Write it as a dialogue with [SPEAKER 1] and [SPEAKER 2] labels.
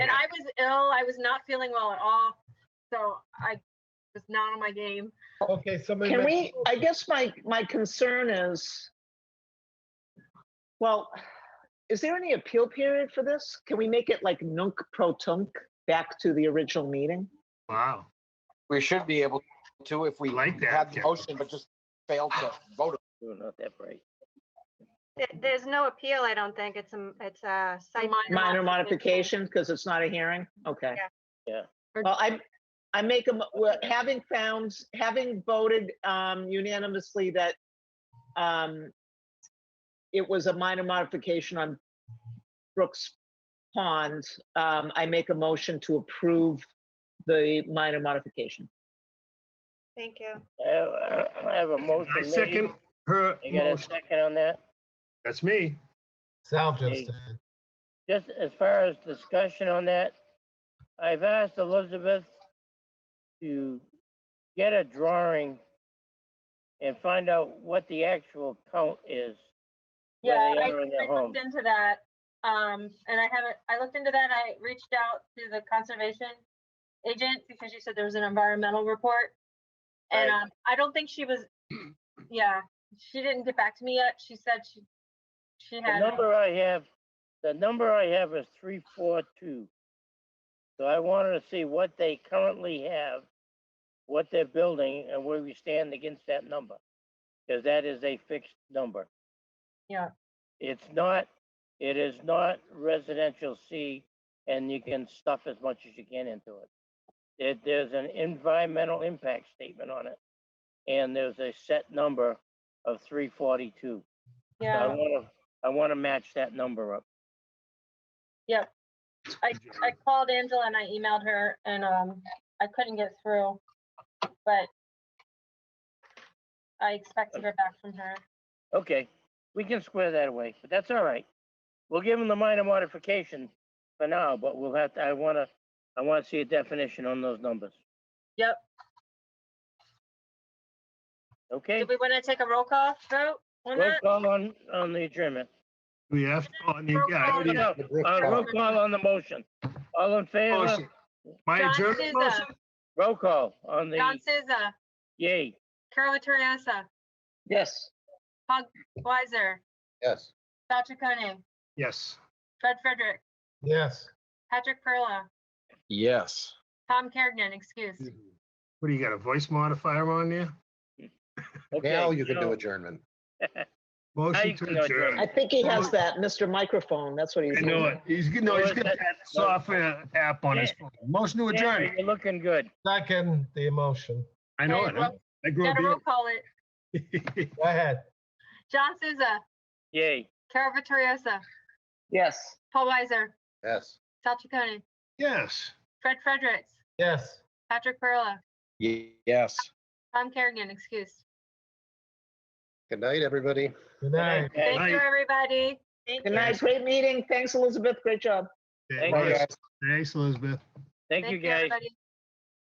[SPEAKER 1] ill. I was not feeling well at all. So I was not on my game.
[SPEAKER 2] Okay, somebody.
[SPEAKER 3] Can
[SPEAKER 2] make-
[SPEAKER 3] we, I guess my, my concern is, well, is there any appeal period for this? Can we make it like nunc pro tunc back to the original meeting?
[SPEAKER 4] Wow.
[SPEAKER 5] We should be able to if we
[SPEAKER 4] Like that,
[SPEAKER 5] have the
[SPEAKER 4] Kevin.
[SPEAKER 5] motion, but just failed to vote.
[SPEAKER 3] No, not that right.
[SPEAKER 6] There- There's no appeal, I don't think. It's a, it's a site.
[SPEAKER 3] Minor modification, because it's not a hearing? Okay.
[SPEAKER 7] Yeah.
[SPEAKER 1] Yeah.
[SPEAKER 3] Well, I, I make a, mo- well, having found, having voted um unanimously that um it was a minor modification on Brooks Pond, um, I make a motion to approve the minor modification.
[SPEAKER 6] Thank you.
[SPEAKER 7] I have- I have a motion
[SPEAKER 4] I
[SPEAKER 7] made.
[SPEAKER 4] second her
[SPEAKER 7] You got a
[SPEAKER 4] motion.
[SPEAKER 7] second on that?
[SPEAKER 4] That's me.
[SPEAKER 2] Sal
[SPEAKER 7] Okay.
[SPEAKER 2] just did.
[SPEAKER 7] Just as far as discussion on that, I've asked Elizabeth to get a drawing and find out what the actual count is. where
[SPEAKER 1] Yeah,
[SPEAKER 7] they
[SPEAKER 1] I,
[SPEAKER 7] are in their
[SPEAKER 1] I
[SPEAKER 7] home.
[SPEAKER 1] looked into that. Um, and I haven't, I looked into that. I reached out to the conservation agent because she said there was an environmental report. And,
[SPEAKER 7] Right.
[SPEAKER 1] um, I don't think she was, yeah, she didn't get back to me yet. She said she, she
[SPEAKER 7] The
[SPEAKER 1] had,
[SPEAKER 7] number I have, the number I have is three, four, two. So I wanted to see what they currently have, what they're building, and where we stand against that number. Because that is a fixed number.
[SPEAKER 1] Yeah.
[SPEAKER 7] It's not, it is not residential C, and you can stuff as much as you can into it. There, there's an environmental impact statement on it, and there's a set number of three forty-two. So I
[SPEAKER 1] yeah,
[SPEAKER 7] wanna, I wanna match that number up.
[SPEAKER 1] I, I called Angela and I emailed her and, um, I couldn't get through, but I expected her back from her.
[SPEAKER 7] Okay, we can square that away, but that's all right. We'll give them the minor modification for now, but we'll have to, I wanna, I wanna see a definition on those numbers.
[SPEAKER 1] Yep.
[SPEAKER 7] Okay,
[SPEAKER 1] Did we want to take a roll call vote on
[SPEAKER 7] roll
[SPEAKER 1] that?
[SPEAKER 7] call on, on the adjournment.
[SPEAKER 4] We have, oh, I mean, yeah, I already
[SPEAKER 7] No,
[SPEAKER 4] have the
[SPEAKER 7] no,
[SPEAKER 4] Brooks
[SPEAKER 7] Uh, roll
[SPEAKER 4] Pond
[SPEAKER 7] call on the motion. All in favor?
[SPEAKER 4] motion. My
[SPEAKER 1] John
[SPEAKER 4] adjournment
[SPEAKER 1] Souza.
[SPEAKER 4] motion?
[SPEAKER 7] Roll call on
[SPEAKER 1] John
[SPEAKER 7] the,
[SPEAKER 1] Souza,
[SPEAKER 7] yay.
[SPEAKER 1] Carol Vittoriosa,
[SPEAKER 3] Yes.
[SPEAKER 1] Weiser,
[SPEAKER 5] Yes.
[SPEAKER 1] Sal Chaconi,
[SPEAKER 4] Yes.
[SPEAKER 1] Fred Frederick,
[SPEAKER 2] Yes.
[SPEAKER 1] Patrick Perla,
[SPEAKER 5] Yes.
[SPEAKER 1] Tom Kergnen, excuse.
[SPEAKER 4] What do you got, a voice modifier on there?
[SPEAKER 7] Okay, so-
[SPEAKER 5] adjournment.
[SPEAKER 4] Motion
[SPEAKER 7] can
[SPEAKER 4] to
[SPEAKER 7] go
[SPEAKER 3] I
[SPEAKER 4] adjourn.
[SPEAKER 7] adjourn.
[SPEAKER 3] think he has that, Mr. Microphone, that's what he's.
[SPEAKER 4] I know it. He's, no, he's got that software app on his phone. Motion to
[SPEAKER 7] Yeah,
[SPEAKER 4] adjourn.
[SPEAKER 7] You're looking good.
[SPEAKER 2] Second, the emotion.
[SPEAKER 4] I know it. huh? I grew
[SPEAKER 1] Gotta roll
[SPEAKER 4] up.
[SPEAKER 1] call it.
[SPEAKER 4] here.
[SPEAKER 2] Go ahead.
[SPEAKER 1] John Souza,
[SPEAKER 7] Yay.
[SPEAKER 1] Carol Vittoriosa,
[SPEAKER 3] Yes.
[SPEAKER 1] Paul Weiser,
[SPEAKER 5] Yes.
[SPEAKER 1] Sal Chaconi,
[SPEAKER 4] Yes.
[SPEAKER 1] Fred Fredericks,
[SPEAKER 2] Yes.
[SPEAKER 1] Patrick Perla,
[SPEAKER 5] Yes.
[SPEAKER 1] Tom Kerrigan, excuse.
[SPEAKER 5] Good night, everybody.
[SPEAKER 2] Good night.
[SPEAKER 7] Okay.
[SPEAKER 1] Thank you,
[SPEAKER 4] Right.
[SPEAKER 1] everybody. Thank
[SPEAKER 3] Good
[SPEAKER 1] you.
[SPEAKER 3] night, great meeting, thanks Elizabeth, great job.
[SPEAKER 7] Thank you.
[SPEAKER 4] Thanks, Elizabeth.
[SPEAKER 7] Thank
[SPEAKER 1] Thank
[SPEAKER 7] you, guys.
[SPEAKER 1] everybody.